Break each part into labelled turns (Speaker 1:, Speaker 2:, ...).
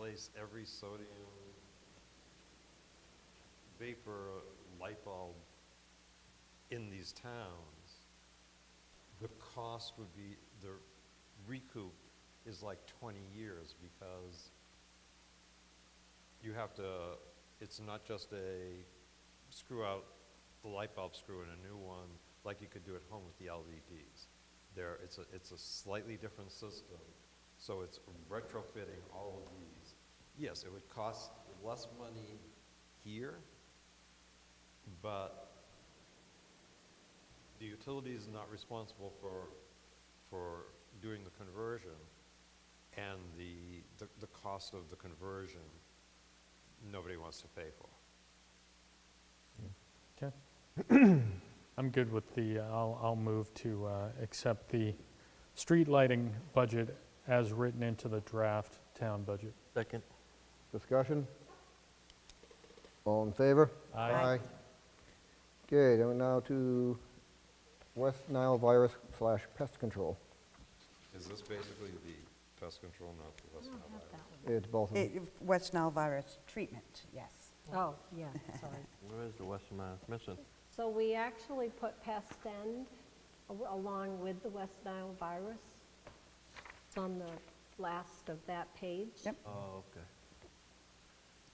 Speaker 1: replace every sodium vapor light bulb in these towns, the cost would be, the recoup is like 20 years because you have to, it's not just a screw out the light bulb screw and a new one, like you could do at home with the LEDs. There, it's a, it's a slightly different system, so it's retrofitting all of these. Yes, it would cost less money here, but the utility is not responsible for, for doing the conversion, and the, the, the cost of the conversion, nobody wants to pay for.
Speaker 2: Okay. I'm good with the, uh, I'll, I'll move to uh, accept the street lighting budget as written into the draft town budget.
Speaker 3: Second.
Speaker 4: Discussion? All in favor? Okay, then we're now to West Nile virus slash pest control.
Speaker 1: Is this basically the pest control, not the West Nile virus?
Speaker 4: It's both of them.
Speaker 5: It- West Nile virus treatment, yes.
Speaker 6: Oh, yeah, sorry.
Speaker 3: Where is the Western Mass missing?
Speaker 6: So we actually put pest end a- along with the West Nile virus. It's on the last of that page.
Speaker 5: Yep.
Speaker 3: Oh, okay.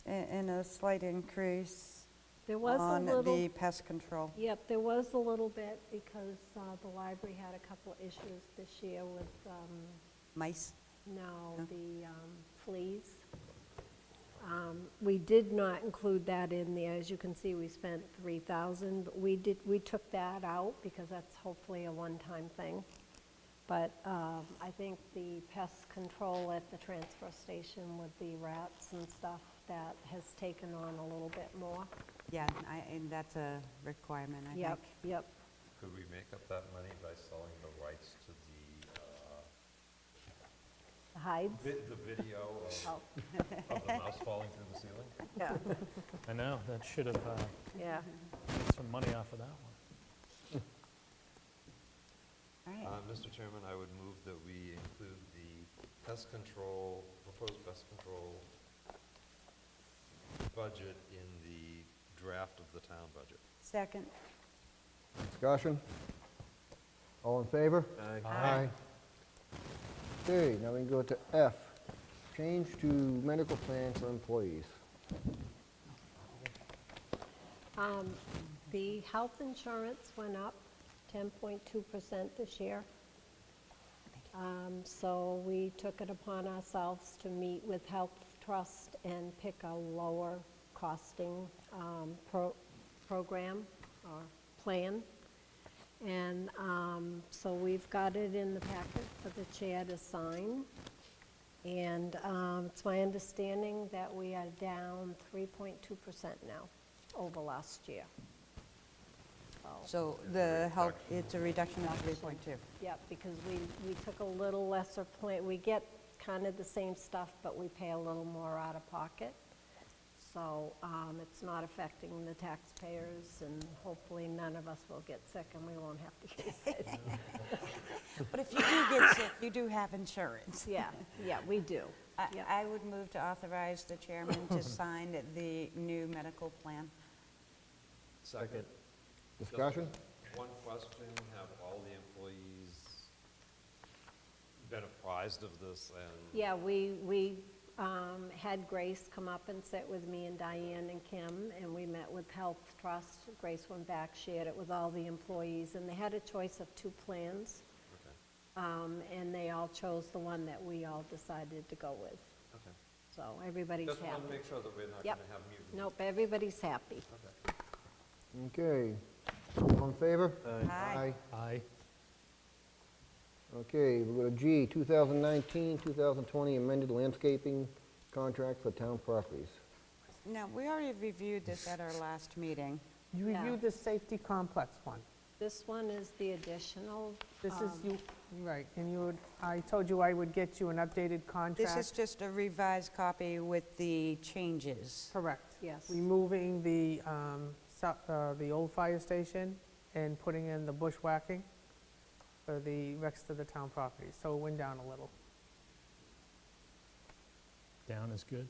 Speaker 5: A- And a slight increase
Speaker 6: There was a
Speaker 5: on the
Speaker 6: little,
Speaker 5: pest control.
Speaker 6: yep, there was a little bit because uh, the library had a couple of issues this year with, um,
Speaker 5: Mice?
Speaker 6: No,
Speaker 5: No?
Speaker 6: the um, fleas. Um, We did not include that in there. As you can see, we spent 3,000, but we did, we took that out because that's hopefully a one-time thing. But um, I think the pest control at the transfer station with the rats and stuff, that has taken on a little bit more.
Speaker 7: Yeah, and I- and that's a requirement, I
Speaker 6: Yep,
Speaker 7: think.
Speaker 6: yep.
Speaker 1: Could we make up that money by selling the rights to the, uh,
Speaker 6: The hides.
Speaker 1: vi- the video of-
Speaker 6: Oh,
Speaker 1: of the mouse falling through the ceiling?
Speaker 6: yeah,
Speaker 2: I know, that should have, uh,
Speaker 6: yeah.
Speaker 2: made some money off of that one.
Speaker 1: Uh,
Speaker 7: All right,
Speaker 1: Mr. Chairman, I would move that we include the pest control, proposed pest control budget in the draft of the town budget.
Speaker 7: second,
Speaker 4: Discussion? All in favor? Aye. Okay, now we can go to F, change to medical plan for employees.
Speaker 6: Um, The health insurance went up 10.2% this year. Um, So we took it upon ourselves to meet with Health Trust and pick a lower costing um, pro- program or plan. And um, so we've got it in the packet for the chair to sign. And um, it's my understanding that we are down 3.2% now over last year. So,
Speaker 7: so the health, it's a reduction of 3.2.
Speaker 6: yeah, because we, we took a little lesser plan, we get kind of the same stuff, but we pay a little more out of pocket. So um, it's not affecting the taxpayers, and hopefully none of us will get sick and we won't have to use it.
Speaker 7: But if you do get sick, you do have insurance.
Speaker 6: Yeah, yeah, we do.
Speaker 7: I-
Speaker 6: Yeah.
Speaker 7: I would move to authorize the chairman to sign the new medical plan.
Speaker 1: Second.
Speaker 4: Discussion?
Speaker 1: One question, have all the employees been apprised of this and?
Speaker 6: Yeah, we, we um, had Grace come up and sit with me and Diane and Kim, and we met with Health Trust. Grace went back, shared it with all the employees, and they had a choice of two plans.
Speaker 1: Okay,
Speaker 6: um, And they all chose the one that we all decided to go with.
Speaker 1: okay.
Speaker 6: So everybody's
Speaker 1: Just want to
Speaker 6: happy.
Speaker 1: make sure that we're not
Speaker 6: Yep.
Speaker 1: going to have mutiny.
Speaker 6: Nope, everybody's happy.
Speaker 1: Okay.
Speaker 4: Okay, all in favor?
Speaker 7: Aye.
Speaker 2: Aye.
Speaker 4: Okay, we go to G, 2019, 2020 amended landscaping contract for town properties.
Speaker 7: Now, we already reviewed this at our last meeting.
Speaker 8: You
Speaker 6: Yeah.
Speaker 8: reviewed the safety complex one.
Speaker 6: This one is the additional.
Speaker 8: This is
Speaker 6: um,
Speaker 8: you, right, and you, would- I told you I would get you an updated
Speaker 7: This is
Speaker 8: contract.
Speaker 7: just a revised copy with the changes.
Speaker 8: Correct.
Speaker 6: Yes.
Speaker 8: Removing the, um, so- uh, the old fire station and putting in the bushwhacking for the rest of the town property. So it went down a little.
Speaker 2: Down is good.